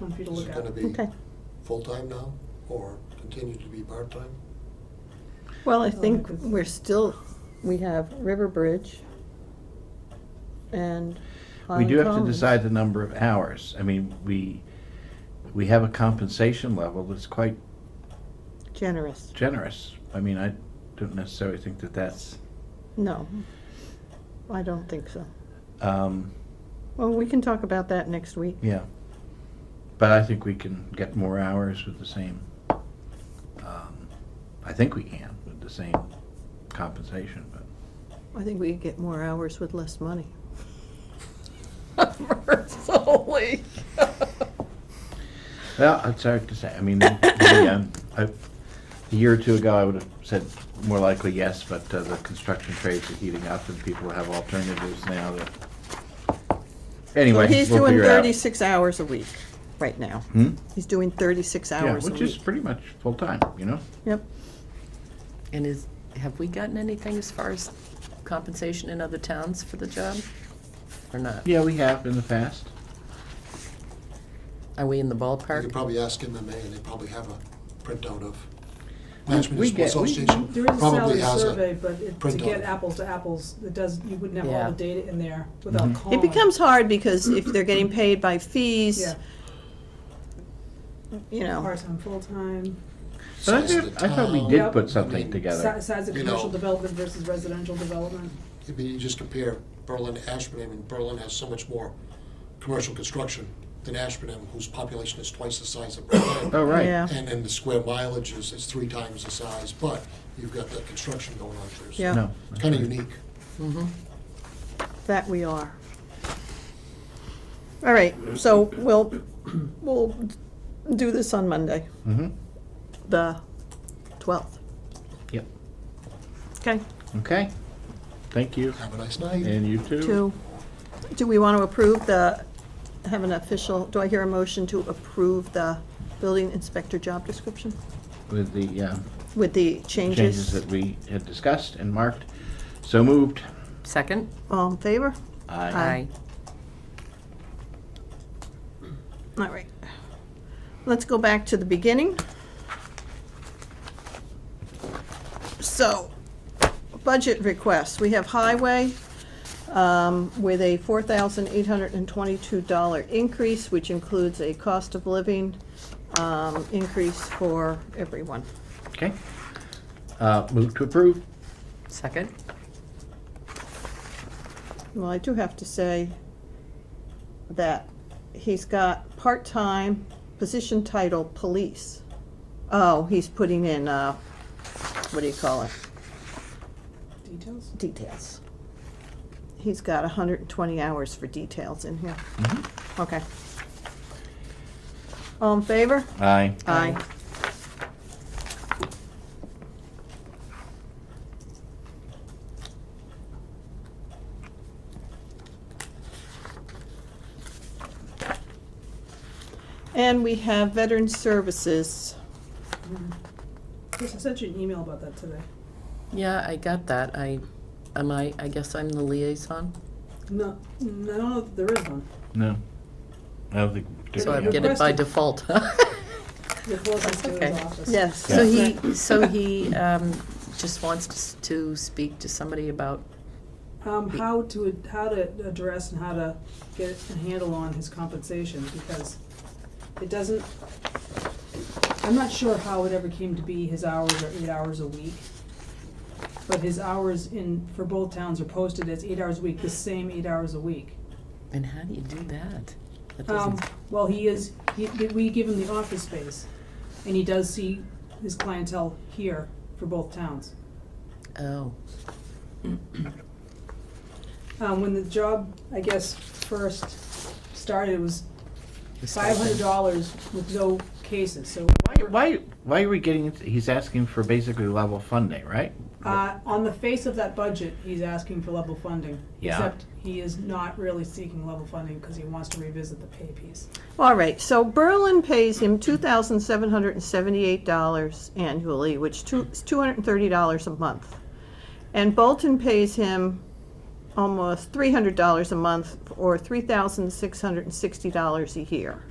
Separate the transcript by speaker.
Speaker 1: one for you to
Speaker 2: Is
Speaker 1: look
Speaker 2: it
Speaker 1: at.
Speaker 2: gonna be
Speaker 3: Okay.
Speaker 2: full-time now, or continue to be part-time?
Speaker 3: Well, I
Speaker 1: Oh,
Speaker 3: think
Speaker 1: because-
Speaker 3: we're still, we have River Bridge and
Speaker 4: We
Speaker 3: Highland
Speaker 4: do have to
Speaker 3: Commons.
Speaker 4: decide the number of hours. I mean, we, we have a compensation level that's quite
Speaker 3: Generous,
Speaker 4: generous. I mean, I don't necessarily think that that's,
Speaker 3: no, I don't think so.
Speaker 4: um,
Speaker 3: Well, we can talk about that next week.
Speaker 4: yeah. But I think we can get more hours with the same, um, I think we can with the same compensation, but.
Speaker 3: I think we could get more hours with less money.
Speaker 1: Mercifully.
Speaker 4: Well, it's hard to say. I mean, the, um, I- a year or two ago, I would have said more likely yes, but uh, the construction trades are heating up and people have alternatives now that. Anyway,
Speaker 3: Well, He's
Speaker 4: we'll
Speaker 3: doing
Speaker 4: figure it out.
Speaker 3: thirty-six hours a week right now.
Speaker 4: Hmm?
Speaker 3: He's doing thirty-six
Speaker 4: Yeah,
Speaker 3: hours a
Speaker 4: which is
Speaker 3: week.
Speaker 4: pretty much full-time, you know?
Speaker 3: Yep,
Speaker 1: And is, have we gotten anything as far as compensation in other towns for the job? Or not?
Speaker 4: Yeah, we have in the past.
Speaker 1: Are we in the
Speaker 2: You could
Speaker 1: ballpark?
Speaker 2: probably ask MMA, and they probably have a printout of National
Speaker 4: Uh,
Speaker 2: Municipal
Speaker 4: We get- we-
Speaker 2: Association.
Speaker 5: There is a
Speaker 2: probably
Speaker 5: salary
Speaker 2: has a-
Speaker 5: survey, but it- to
Speaker 2: printout.
Speaker 5: get apples to apples, it does, you wouldn't have all
Speaker 1: Yeah.
Speaker 5: the data in there
Speaker 2: Mm-hmm.
Speaker 5: without calling.
Speaker 3: it becomes hard because if they're getting paid by fees,
Speaker 5: Yeah,
Speaker 3: you know,
Speaker 5: part-time, full-time,
Speaker 4: But I
Speaker 2: size of
Speaker 4: did-
Speaker 2: the
Speaker 4: I thought we
Speaker 2: town.
Speaker 4: did put
Speaker 2: I
Speaker 4: something
Speaker 2: mean,
Speaker 4: together.
Speaker 5: si- size of
Speaker 2: You
Speaker 5: commercial
Speaker 2: know.
Speaker 5: development versus residential development.
Speaker 2: I mean, you just compare Berlin to Ashburnham, and Berlin has so much more commercial construction than Ashburnham, whose population is twice the size of Berlin.
Speaker 4: Oh, right.
Speaker 3: Yeah.
Speaker 2: And then the square mileage is, is three times the size, but you've got that construction going on there. so
Speaker 3: Yeah.
Speaker 4: No.
Speaker 2: It's kind of unique.
Speaker 3: that we are. All right, so we'll, we'll do this on Monday,
Speaker 4: Mm-hmm,
Speaker 3: the twelfth,
Speaker 4: yep.
Speaker 3: okay?
Speaker 4: Okay. Thank you.
Speaker 2: Have a nice night.
Speaker 4: And you too.
Speaker 3: To, do we want to approve the, have an official, do I hear a motion to approve the building inspector job description
Speaker 4: With the um,
Speaker 3: with the changes?
Speaker 4: changes that we had discussed and marked. So moved.
Speaker 1: Second?
Speaker 3: All in favor?
Speaker 4: Aye.
Speaker 3: All right. Let's go back to the beginning. So, budget requests. We have highway um, with a $4,822 increase, which includes a cost of living um, increase for everyone.
Speaker 4: Okay. Uh, Move to approve.
Speaker 1: Second?
Speaker 3: Well, I do have to say that he's got part-time position title police. Oh, he's putting in, uh, what do you call it?
Speaker 5: Details?
Speaker 3: Details. He's got hundred and twenty hours for details in here.
Speaker 4: Mm-hmm.
Speaker 3: Okay. All in favor?
Speaker 4: Aye.
Speaker 3: Aye. And we have veteran services.
Speaker 5: Chris, I sent you an email about that today.
Speaker 1: Yeah, I got that. I, am I, I guess I'm the liaison?
Speaker 5: No, no, I don't know if there is one.
Speaker 4: No. I don't think.
Speaker 1: So I
Speaker 4: particularly.
Speaker 1: get it by
Speaker 5: Requested.
Speaker 1: default.
Speaker 5: The closest to
Speaker 1: Okay.
Speaker 5: his office.
Speaker 3: Yes.
Speaker 1: So he, so he um, just wants to s- to speak to somebody about,
Speaker 5: Um, how to, how to address and how to get a handle on his compensation, because it doesn't, I'm not sure how it ever came to be his hours are eight hours a week. But his hours in, for both towns are posted as eight hours a week, the same eight hours a week.
Speaker 1: and how do you do that? That
Speaker 5: Um,
Speaker 1: doesn't,
Speaker 5: well, he is, he, we give him the office space, and he does see his clientele here for both towns.
Speaker 1: oh,
Speaker 5: Um, when the job, I guess, first started, it was
Speaker 1: the
Speaker 5: five hundred
Speaker 1: stipend.
Speaker 5: dollars with no cases, so.
Speaker 4: Why, why are we getting, into- he's asking for basically level funding, right?
Speaker 5: Uh, on the face of that budget, he's asking for level funding.
Speaker 4: Yeah.
Speaker 5: Except he is not really seeking level funding because he wants to revisit the pay piece.
Speaker 3: All right, so Berlin pays him two thousand seven hundred and seventy-eight dollars annually, which two, is two hundred and thirty dollars a month. And Bolton pays him almost three hundred dollars a month, or three thousand six hundred and sixty dollars a year.